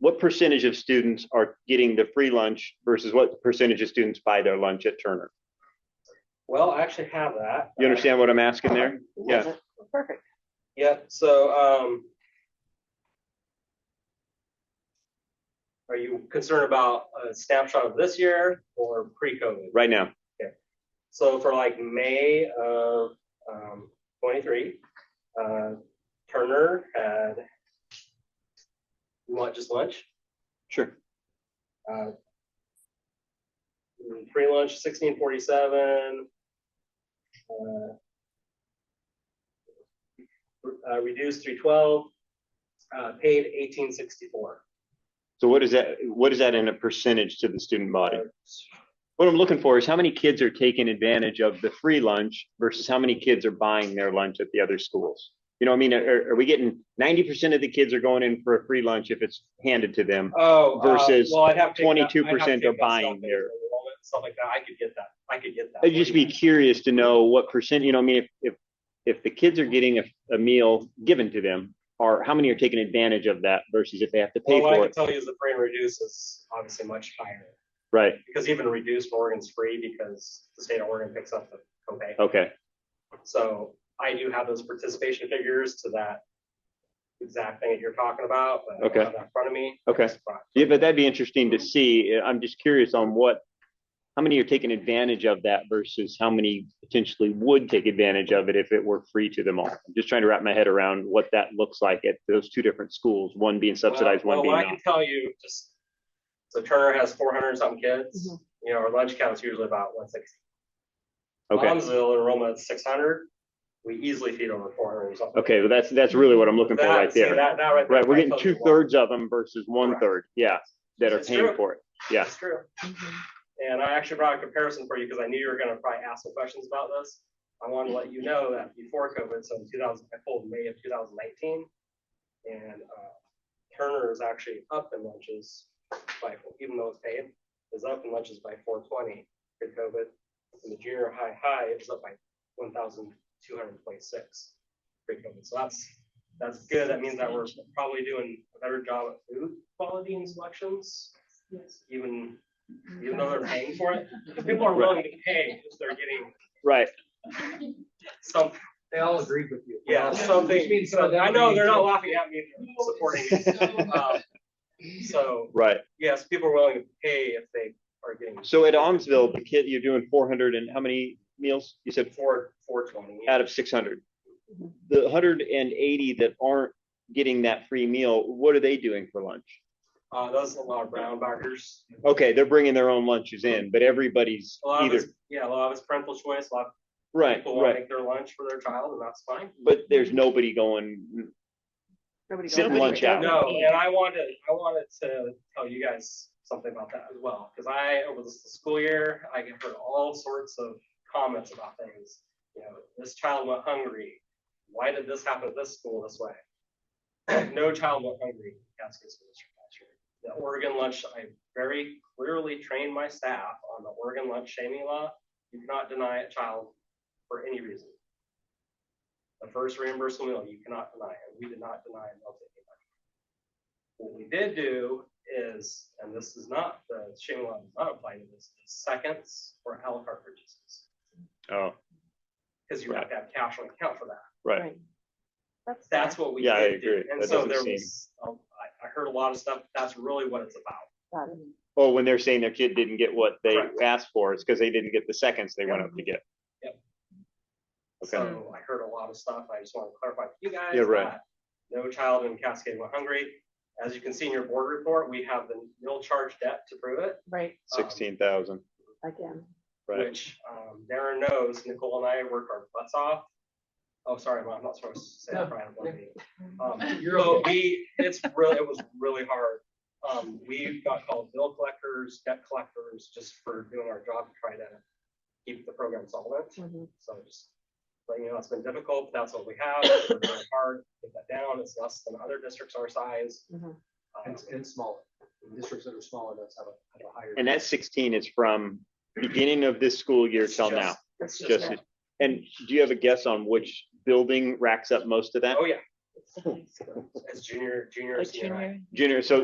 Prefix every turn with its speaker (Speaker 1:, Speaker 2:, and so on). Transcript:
Speaker 1: what percentage of students are getting the free lunch versus what percentage of students buy their lunch at Turner?
Speaker 2: Well, I actually have that. Uh,
Speaker 1: You understand what I'm asking there? Yeah.
Speaker 3: Perfect.
Speaker 2: Yeah, so, um. Are you concerned about a snapshot of this year or pre-COVID?
Speaker 1: Right now,
Speaker 2: So for like May of um, 23, uh, Turner had, you want just lunch?
Speaker 1: sure.
Speaker 2: Uh, mm, free lunch 1647. Uh, uh, reduced 312. Uh, paid 1864.
Speaker 1: So what is that, what is that in a percentage to the student body? What I'm looking for is how many kids are taking advantage of the free lunch versus how many kids are buying their lunch at the other schools? You know, what I mean, are, are we getting ninety percent of the kids are going in for a free lunch if it's handed to them?
Speaker 2: Oh, uh,
Speaker 1: Versus
Speaker 2: well, I'd have to take that- I'd have to
Speaker 1: 22%
Speaker 2: take
Speaker 1: are
Speaker 2: that
Speaker 1: buying
Speaker 2: stuff into
Speaker 1: their-
Speaker 2: enrollment, Stuff like that. I could get that. I could get that.
Speaker 1: I'd just be curious to know what percent, you know, I mean, if, if, if the kids are getting a, a meal given to them, or how many are taking advantage of that versus if they have to pay
Speaker 2: Well, what Oh, I
Speaker 1: for
Speaker 2: can
Speaker 1: it,
Speaker 2: tell you is the free and reduce is obviously much higher
Speaker 1: right?
Speaker 2: because even reduced Oregon's free because the state of Oregon picks up the copay.
Speaker 1: Okay,
Speaker 2: So I do have those participation figures to that exact thing that you're talking about, but I
Speaker 1: Okay.
Speaker 2: don't have that in front of me.
Speaker 1: okay. Yeah, but that'd be interesting to see. I'm just curious on what, how many are taking advantage of that versus how many potentially would take advantage of it if it were free to them all. I'm just trying to wrap my head around what that looks like at those two different schools, one being subsidized,
Speaker 2: Well,
Speaker 1: one
Speaker 2: well,
Speaker 1: being
Speaker 2: What I
Speaker 1: not.
Speaker 2: can tell you, just, so Turner has four hundred and something kids,
Speaker 3: Mhm.
Speaker 2: you know, our lunch count's usually about one sixty.
Speaker 1: Okay,
Speaker 2: Lonsdale enrollment six hundred, we easily feed over four hundred or something.
Speaker 1: okay, well, that's, that's really what I'm looking for
Speaker 2: That-
Speaker 1: right
Speaker 2: see,
Speaker 1: there.
Speaker 2: That, that right there.
Speaker 1: Right, we're getting
Speaker 2: tells you
Speaker 1: two
Speaker 2: a lot.
Speaker 1: thirds of them versus one
Speaker 2: Correct.
Speaker 1: third, yeah, that are
Speaker 2: It's
Speaker 1: paying
Speaker 2: true.
Speaker 1: for it. Yeah,
Speaker 2: That's true. And I actually brought a comparison for you because I knew you were gonna probably ask some questions about this. I want to let you know that before COVID, so in two thousand, I pulled May of two thousand nineteen. And uh, Turner is actually up in lunches by, even though it's paid, is up in lunches by four twenty pre-COVID. And the junior high high is up by one thousand two hundred twenty-six pre-COVID. So that's, that's good. That means that we're probably doing a better job at food quality and selections. Even even though they're paying for it, because people are willing to pay if they're getting
Speaker 1: right,
Speaker 2: some,
Speaker 4: They all agreed with you.
Speaker 2: yeah,
Speaker 4: Which
Speaker 2: something.
Speaker 4: means some of them
Speaker 2: I know
Speaker 4: agreed
Speaker 2: they're
Speaker 4: too.
Speaker 2: not laughing at me for supporting it. Um, So,
Speaker 1: right.
Speaker 2: yes, people are willing to pay if they are getting
Speaker 1: So at Almsville, the kid, you're doing four hundred and how many meals? You said
Speaker 2: four, four twenty.
Speaker 1: out of six hundred. The hundred and eighty that aren't getting that free meal, what are they doing for lunch?
Speaker 2: Uh, those are a lot of brown backers.
Speaker 1: Okay, they're bringing their own lunches in, but everybody's
Speaker 2: A lot of
Speaker 1: either,
Speaker 2: it's, yeah, a lot of it's parental choice, a lot of
Speaker 1: right,
Speaker 2: people want to
Speaker 1: right.
Speaker 2: make their lunch for their child and that's fine.
Speaker 1: But there's nobody going, Sit and lunch out.
Speaker 2: No, and I wanted, I wanted to tell you guys something about that as well, because I, over the school year, I get heard all sorts of comments about things. You know, this child went hungry. Why did this happen at this school this way? No child went hungry, in Cascade School District last year. The Oregon lunch, I very clearly trained my staff on the Oregon lunch shaming law. You cannot deny a child for any reason. The first reimbursable meal, you cannot deny it. We did not deny a meal to anybody. What we did do is, and this is not, the shaming law does not apply to this, is seconds or a la carte purchases.
Speaker 1: oh,
Speaker 2: Because you have to have cash on account for that.
Speaker 1: right,
Speaker 2: That's what we
Speaker 1: Yeah, I
Speaker 2: did do.
Speaker 1: agree.
Speaker 2: And
Speaker 1: That
Speaker 2: so
Speaker 1: doesn't
Speaker 2: there
Speaker 1: seem-
Speaker 2: was, um, I, I heard a lot of stuff. That's really what it's about.
Speaker 1: or Oh, when they're saying their kid didn't get what they
Speaker 2: Correct.
Speaker 1: asked for, it's because they didn't get the seconds they went up to get. Okay.
Speaker 2: So I heard a lot of stuff. I just want to clarify for you guys.
Speaker 1: Yeah, right.
Speaker 2: that No child in Cascade went hungry. As you can see in your board report, we have the nil charge debt to prove it.
Speaker 3: Right,
Speaker 1: Sixteen thousand,
Speaker 3: again.
Speaker 1: right?
Speaker 2: which um, Darren knows, Nicole and I work our butts off. Oh, sorry, Mom, I'm not supposed to say that. Brian, I'm blaming you. Um,
Speaker 4: You're
Speaker 2: so
Speaker 4: okay.
Speaker 2: we, it's really, it was really hard. Um, we got called bill collectors, debt collectors, just for doing our job to try to keep the program solvent.
Speaker 3: Mhm.
Speaker 2: So just letting you know, it's been difficult. That's what we have. It's been really hard. to Get that down. It's less than other districts our size.
Speaker 3: Mhm.
Speaker 2: Um,
Speaker 4: And, and smaller. Districts that are smaller, that's have a, have a higher.
Speaker 1: And that sixteen is from beginning of this school year
Speaker 2: it's
Speaker 1: till
Speaker 2: just-
Speaker 1: now.
Speaker 2: it's
Speaker 1: Just,
Speaker 2: just-
Speaker 1: and do you have a guess on which building racks up most of that?
Speaker 2: Oh, yeah.
Speaker 3: It's the high school.
Speaker 2: It's junior, junior.
Speaker 3: Like
Speaker 2: senior high.
Speaker 3: junior.
Speaker 1: Junior, so